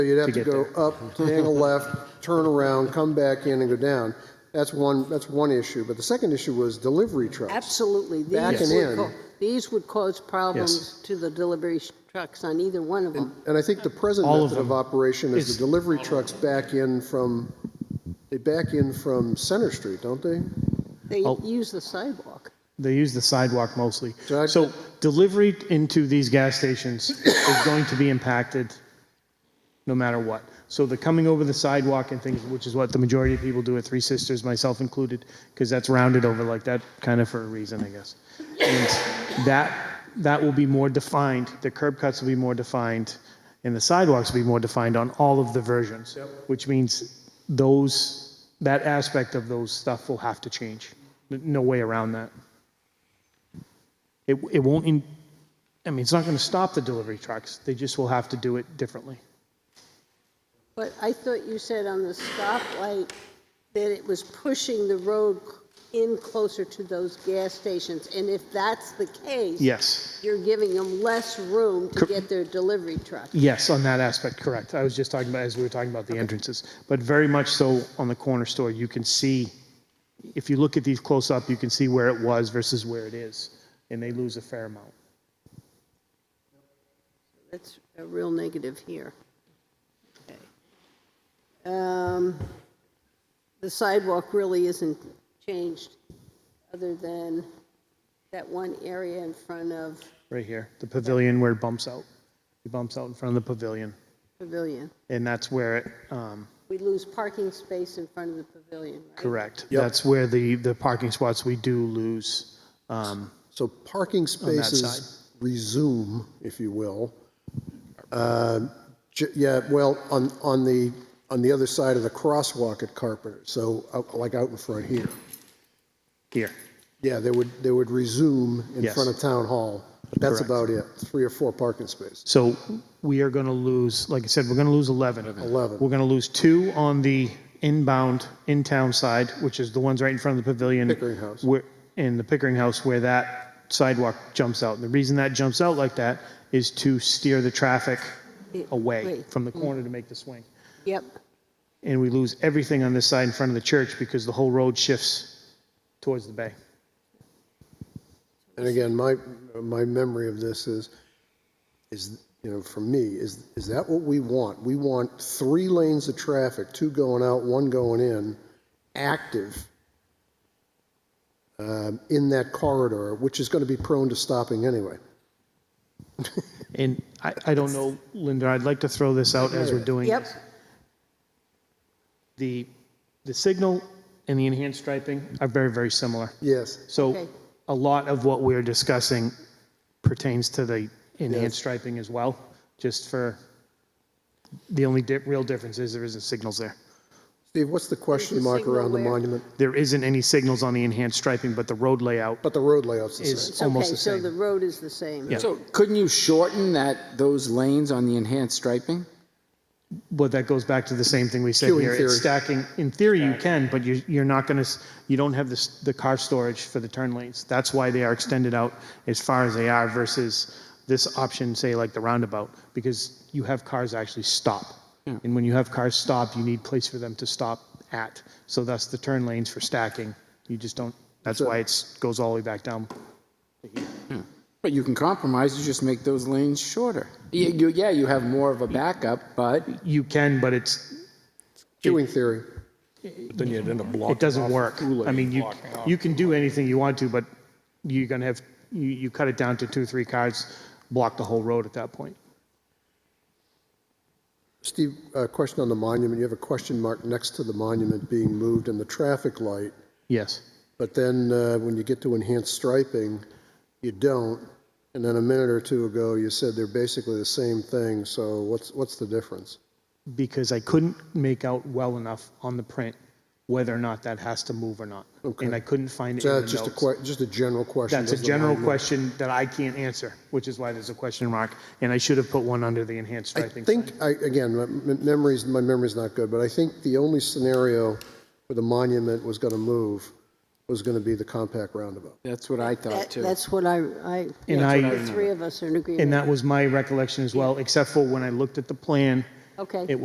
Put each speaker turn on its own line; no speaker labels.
So you'd have to
get
go up, hang a left, turn around, come back in and go down. That's one, that's one issue. But the second issue was delivery trucks.
Absolutely. These
Back and
would
in.
co- These would cause problems to the delivery sh- trucks on either one of them.
And I think the present
All of
method of
them.
operation is
It's-
the delivery trucks back in from, they back in from Center Street, don't they?
They
Oh.
use the sidewalk.
They use the sidewalk mostly.
So I-
So delivery into these gas stations is going to be impacted no matter what. So the coming over the sidewalk and things, which is what the majority of people do at Three Sisters, myself included, because that's rounded over like that, kind of for a reason, I guess. And that, that will be more defined, the curb cuts will be more defined, and the sidewalks will be more defined on all of the versions. Which means those, that aspect of those stuff will have to change. N- No way around that. It, it won't, in- I mean, it's not going to stop the delivery trucks, they just will have to do it differently.
But I thought you said on the stoplight that it was pushing the road c- in closer to those gas stations. And if that's the case.
Yes,
You're giving them less room to
Cor-
get their delivery truck.
yes, on that aspect, correct. I was just talking about, as we were talking about the entrances, but very much so on the corner store, you can see, if you look at these close up, you can see where it was versus where it is, and they lose a fair amount.
That's a real negative here. Okay. Um, The sidewalk really isn't changed, other than that one area in front of
Right here, the pavilion where it bumps out, it bumps out in front of the pavilion,
Pavilion.
and that's where it, um,
We lose parking space in front of the Pavilion, right?
correct.
Yep.
That's where the, the parking spots we do lose, um,
So parking
side.
spaces resume, if you will. Uh, j- Yeah, well, on, on the, on the other side of the crosswalk at Carpenter, so out- like out in front here.
here.
Yeah, they would, they would resume in
Yes.
front of Town Hall. That's
Correct.
about it, three or four parking spaces.
So we are going to lose, like I said, we're going to lose 11.
11.
We're going to lose two on the inbound, in-town side, which is the ones right in front of the pavilion.
Pickering House.
Where, in the Pickering House, where that sidewalk jumps out. And the reason that jumps out like that is to steer the traffic
Yeah,
away
right. Mm-hmm.
from the corner to make the swing.
Yep,
And we lose everything on this side in front of the church because the whole road shifts towards the bay.
And again, my, my memory of this is, is, you know, for me, is, is that what we want? We want three lanes of traffic, two going out, one going in, active um, in that corridor, which is going to be prone to stopping anyway.
And I, I don't know, Linda, I'd like to throw this out as we're doing
yep,
this. The, the signal and the enhanced striping are very, very similar.
Yes,
So
Okay.
a lot of what we're discussing pertains to the
Yes.
enhanced striping as well, just for, the only di- real difference is there isn't signals there.
Steve, what's the question
There's a
mark
signal
around the
where?
monument?
There isn't any signals on the enhanced striping, but the road layout,
But the road layout's the
Is-
same.
it's
almost
okay,
the
so
same.
the road is the same.
Yeah.
So couldn't you shorten that, those lanes on the enhanced striping?
but that goes back to the same thing we said
Queuing
here.
theory.
It's stacking, in theory you can, but you, you're not gonna, s- you don't have this, the car storage for the turn lanes. That's why they are extended out as far as they are versus this option, say like the roundabout, because you have cars actually stop. And when you have cars stop, you need place for them to stop at. So thus the turn lanes for stacking. You just don't, that's
So-
why it's, goes all the way back down.
But you can compromise, you just make those lanes shorter. Yeah, you, yeah, you have more of a backup, but
You can, but it's,
Queuing theory.
Then you'd end up blocking.
it doesn't
off
work.
two lanes,
I mean, you,
blocking off.
you can do anything you want to, but you're gonna have, you, you cut it down to two, three cars, block the whole road at that point.
Steve, a question on the monument. You have a question mark next to the monument being moved and the traffic light.
Yes.
But then uh, when you get to enhanced striping, you don't. And then a minute or two ago, you said they're basically the same thing, so what's, what's the difference?
Because I couldn't make out well enough on the print whether or not that has to move or not.
Okay.
And I couldn't find it in
So
the
that's just a,
notes.
que- just a general question.
That's a
Does the
general
monument-
question that I can't answer, which is why there's a question mark, and I should have put one under the enhanced
I
striping. sign.
think, I, again, my m- memory's, my memory's not good, but I think the only scenario where the monument was going to move was going to be the compact roundabout.
that's what I thought
That-
too.
That's what I, I,
And
that's
I-
what the three of us are in agreement.
And that was my recollection as well, except for when I looked at the plan
Okay.
It